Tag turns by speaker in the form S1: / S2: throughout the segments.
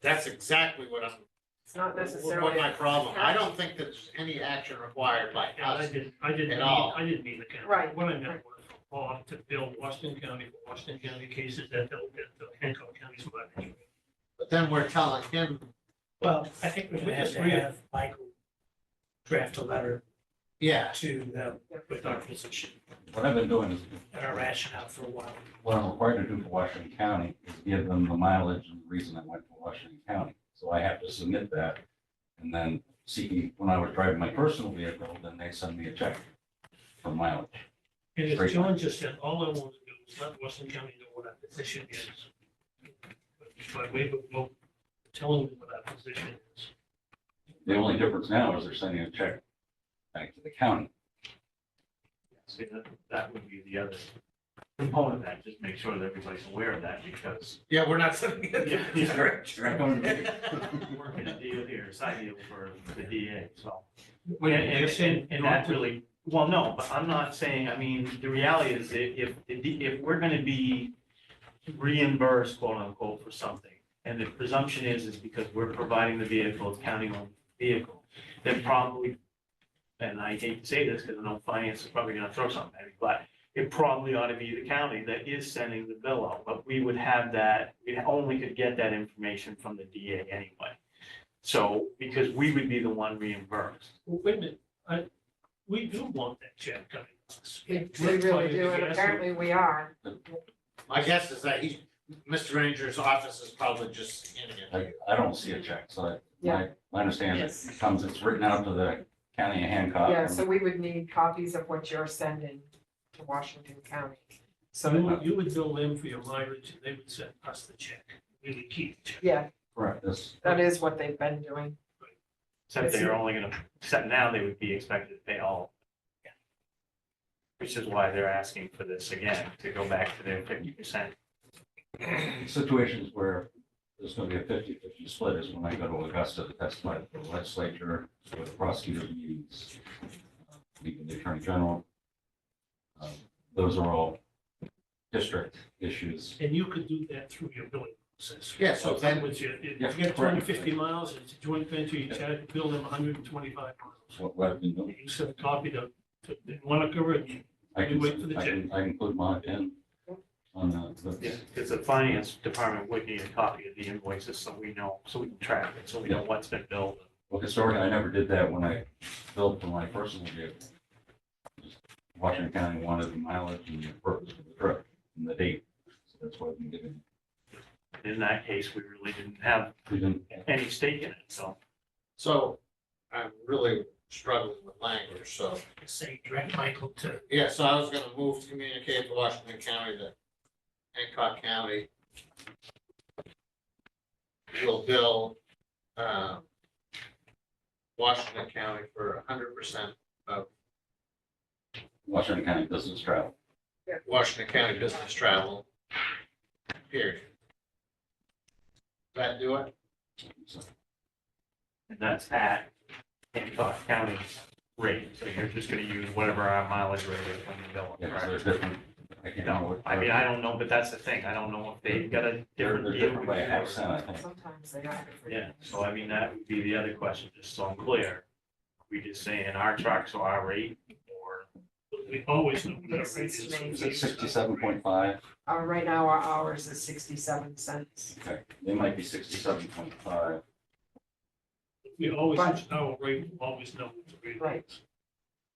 S1: That's exactly what I'm,
S2: It's not
S1: what
S2: necessarily.
S1: my problem, I don't think there's any action required by
S3: Yeah, I
S1: us.
S3: didn't, I didn't
S1: At
S3: mean,
S1: all.
S3: I didn't mean the county.
S2: Right,
S3: What I meant was off to bill Washington County, for Washington County cases that they'll get the Hancock County's mileage.
S1: But then we're telling him,
S4: Well, I think we're
S3: We
S4: gonna have to
S3: agree.
S4: have Michael draft a letter
S1: yeah,
S4: to them with our position
S5: What I've been doing is,
S4: and our rationale for a while.
S5: what I'm required to do for Washington County is give them the mileage and the reason I went to Washington County. So I have to submit that. And then see, when I was driving my personal vehicle, then they send me a check for mileage.
S3: And as
S5: Great.
S3: John just said, all I want to do is let Washington County know what our position is. By way of vote, telling them what our position is.
S5: The only difference now is they're sending a check back to the county.
S6: See, that, that would be the other component of that, just make sure that everybody's aware of that, because
S1: yeah, we're not sending it.
S6: Yeah, yeah,
S1: Correct.
S6: we're working a deal here, a side deal for the DA, so.
S3: Well,
S6: And, and, and- and that really, well, no, but I'm not saying, I mean, the reality is, i- if, if, if we're gonna be reimbursed, quote unquote, for something, and the presumption is, is because we're providing the vehicle, it's county-owned vehicle, then probably, and I hate to say this, because I know finance is probably gonna throw something at me, but it probably ought to be the county that is sending the bill out, but we would have that, we only could get that information from the DA anyway. So, because we would be the one reimbursed.
S3: Well, Wait a minute, I, we do want that check coming. to us.
S2: we we really do, and apparently we are.
S1: My guess is that he, Mr. Ranger's office is probably just scanning it.
S5: Like, I don't see a check, so I,
S2: Yeah.
S5: my, my understanding is it comes, it's written out to the county of Hancock.
S2: Yeah, so we would need copies of what you're sending to Washington County.
S3: So you
S2: So,
S3: would, you would bill them for your mileage, and they would send us the check, we would keep the check.
S2: yeah,
S5: Correct, this,
S2: that is what they've been doing.
S6: Except they're only gonna, except now they would be expected to pay all. Which is why they're asking for this again, to go back to their fifty percent.
S5: situations where there's gonna be a 50-50 split is when I go to Augusta, that's my legislature, with the prosecutor meetings, uh, meeting the attorney general. Um, Those are all district issues.
S3: And you could do that through your billing process.
S1: Yeah, so then-
S3: With your, if you
S5: Yeah,
S3: get
S5: correct.
S3: two hundred and fifty miles, it's a joint venture, you charge, bill them hundred and twenty-five
S5: That's
S3: miles.
S5: what what I've been doing.
S3: You send a copy to, to Monica, and
S5: I
S3: You wait for the
S5: can, I can, I can put mine in on the,
S6: Yeah,
S5: the-
S6: because the finance department would need a copy of the invoices, so we know, so we can track it, so we know what's been billed.
S5: well, historically, I never did that when I built for my personal vehicle. Just Washington County wanted the mileage and the purpose of the trip and the date, so that's why I've been giving.
S6: In that case, we really didn't have
S5: we didn't-
S6: any stake in it, so.
S1: So I'm really struggling with language, so,
S3: say, direct Michael to,
S1: yeah, so I was gonna move to communicate to Washington County that Hancock County will bill, um, Washington County for hundred percent
S5: Washington County Business Travel.
S1: Washington County business travel. Period. Does that do it?
S6: And that's at Hancock County rate, so you're just gonna use whatever our mileage rate is when you bill.
S5: Yeah,
S6: them,
S5: 'cause
S6: correct?
S5: they're different. I can't know what.
S6: I mean, I don't know, but that's the thing, I don't know if they've got a
S5: They're,
S6: different.
S5: they're
S6: deal
S5: different by a half
S6: or-
S5: cent, I think.
S2: Sometimes they are.
S6: Yeah, so I mean, that would be the other question, just so I'm clear. We just saying our trucks or our rate or,
S3: we always know what our
S2: Makes
S3: rate
S2: sense
S3: is.
S2: to me.
S5: Is it sixty-seven point five?
S2: Uh, right now, our hours is sixty-seven cents.
S5: Okay, they might be sixty-seven point five.
S3: We always
S2: Right.
S3: know our rate, we always know what the rate
S2: Right.
S3: is.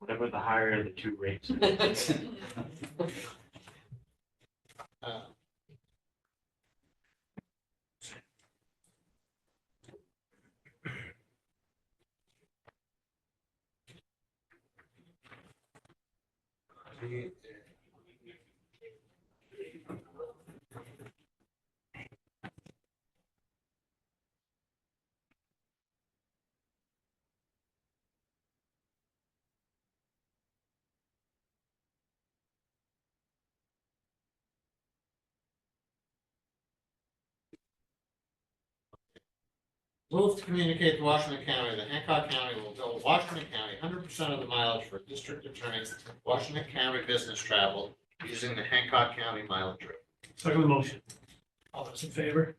S6: whatever the higher of the two rates. is.
S1: Uh, Move to communicate to Washington County that Hancock County will bill Washington County hundred percent of the mileage for district attorney's Washington County business travel using the Hancock County mileage rate.
S3: Second motion, all those in favor?